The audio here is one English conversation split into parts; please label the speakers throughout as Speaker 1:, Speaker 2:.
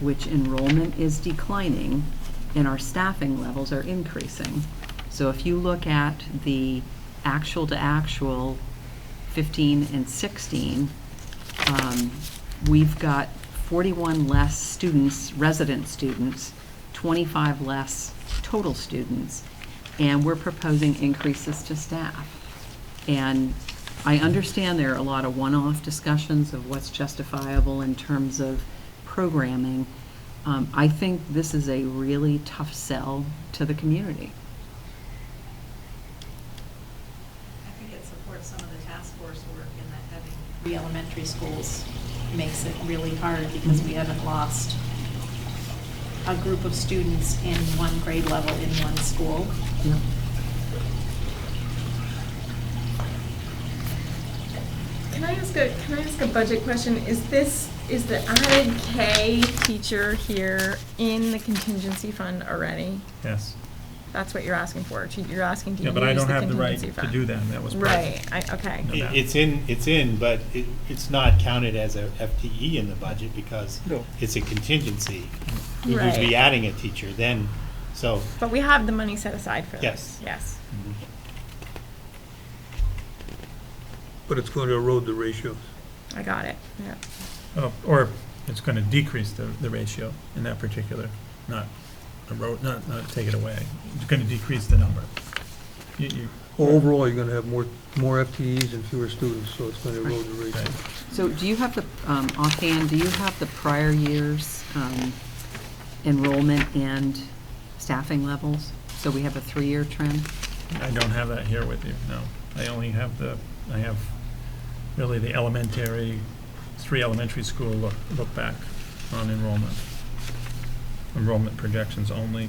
Speaker 1: which enrollment is declining and our staffing levels are increasing. So if you look at the actual to actual 15 and 16, um, we've got 41 less students, resident students, 25 less total students, and we're proposing increases to staff. And I understand there are a lot of one-off discussions of what's justifiable in terms of programming. Um, I think this is a really tough sell to the community.
Speaker 2: I think it supports some of the task force work in that having three elementary schools makes it really hard because we haven't lost a group of students in one grade level in one school.
Speaker 3: Can I ask a, can I ask a budget question? Is this, is the added K teacher here in the contingency fund already?
Speaker 4: Yes.
Speaker 3: That's what you're asking for, to- you're asking to
Speaker 4: Yeah,
Speaker 3: use the
Speaker 4: but I don't have the right
Speaker 3: contingency
Speaker 4: to
Speaker 3: fund?
Speaker 4: do that. That was. part of it.
Speaker 3: Right, I, okay.
Speaker 4: No.
Speaker 5: It- It's in, it's in, but it, it's not counted as a FTE in the budget because
Speaker 4: No.
Speaker 5: it's a contingency. You'd
Speaker 3: Right.
Speaker 5: be adding a teacher then, so,
Speaker 3: But we have the money set aside for this.
Speaker 5: Yes.
Speaker 3: Yes.
Speaker 6: But it's going to erode the ratios.
Speaker 3: I got it, yeah.
Speaker 4: Oh, Or it's going to decrease the, the ratio in that particular, not erode, not, not take it away. It's going to decrease the number. You, you,
Speaker 6: Overall, you're going to have more, more FTEs and fewer students, so it's going to erode the ratio.
Speaker 4: right.
Speaker 1: So do you have the, um, offhand, do you have the prior year's um, enrollment and staffing levels? So we have a three-year trend?
Speaker 4: I don't have that here with you, no. I only have the, I have really the elementary, three elementary school look, look back on enrollment. Enrollment projections only.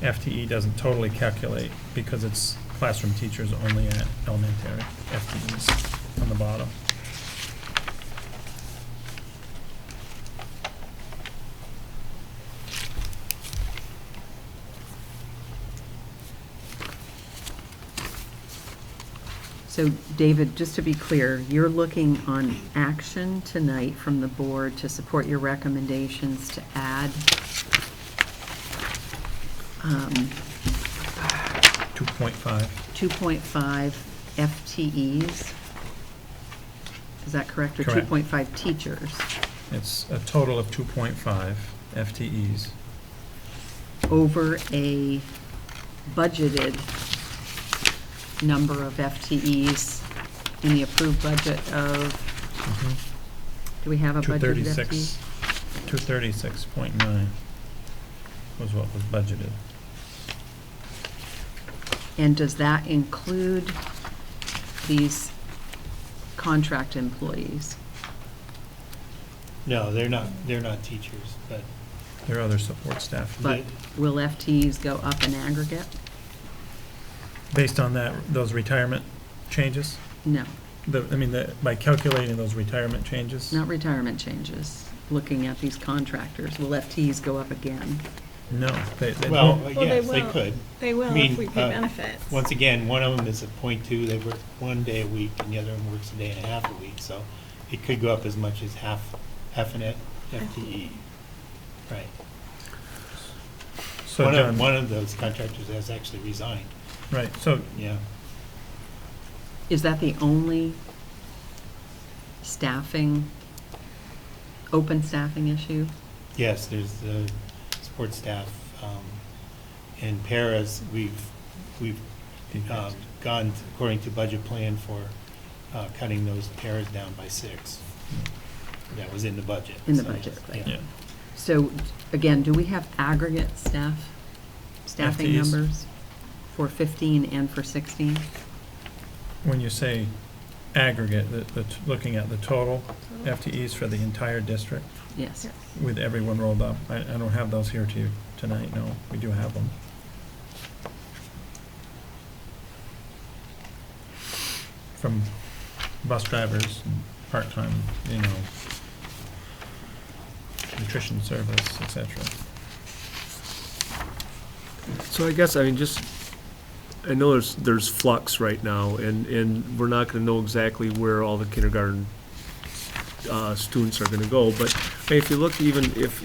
Speaker 4: FTE doesn't totally calculate because it's classroom teachers only at elementary FTEs on the bottom.
Speaker 1: So David, just to be clear, you're looking on action tonight from the board to support your recommendations to add um,
Speaker 4: Two point five.
Speaker 1: 2.5 FTEs? Is that correct? Or
Speaker 4: Correct.
Speaker 1: 2.5 teachers
Speaker 4: It's a total of two point five FTEs.
Speaker 1: over a budgeted number of FTEs in the approved budget of, do we have a
Speaker 4: Two
Speaker 1: budgeted FTE?
Speaker 4: thirty-six, two thirty-six point nine was what was budgeted.
Speaker 1: And does that include these contract employees?
Speaker 5: no, they're not, they're not teachers, but
Speaker 4: There are other support staff.
Speaker 1: But will FTEs go up in aggregate?
Speaker 4: Based on that, those retirement changes,
Speaker 1: No,
Speaker 4: the, I mean, the, by calculating those retirement changes?
Speaker 1: not retirement changes, looking at these contractors. Will FTEs go up again?
Speaker 4: No, they, they
Speaker 5: Well,
Speaker 4: won't.
Speaker 3: Well, they
Speaker 5: yes, they
Speaker 3: will.
Speaker 5: could.
Speaker 3: They will
Speaker 5: mean,
Speaker 3: if we pay
Speaker 5: uh,
Speaker 3: benefits.
Speaker 5: Once again, one of them is a point two, they work one day a week, and the other one works a day and a half a week, so it could go up as much as half, half an FTE. E. Right.
Speaker 4: So,
Speaker 5: One of,
Speaker 4: John,
Speaker 5: one of those contractors has actually resigned,
Speaker 4: right, so
Speaker 5: yeah.
Speaker 1: Is that the only staffing, open staffing issue?
Speaker 5: Yes, there's the support staff. um, In Paris, we've, we've um, gone according to budget plan for uh, cutting those paras down by six. That was in the budget.
Speaker 1: In the
Speaker 5: so,
Speaker 1: budget, right.
Speaker 4: Yeah.
Speaker 1: So, again, do we have aggregate staff, staffing
Speaker 4: FTEs?
Speaker 1: numbers for 15 and for 16?
Speaker 4: when you say aggregate, the, the, t- looking at the total FTEs for the entire district
Speaker 1: Yes.
Speaker 3: Yes.
Speaker 4: with everyone rolled up, I, I don't have those here to you tonight, no, we do have them. From bus drivers, and part-time, you know, nutrition service, et cetera.
Speaker 7: So I guess, I mean, just, I know there's, there's flux right now, and, and we're not gonna know exactly where all the kindergarten, uh, students are gonna go, but if you look even, if,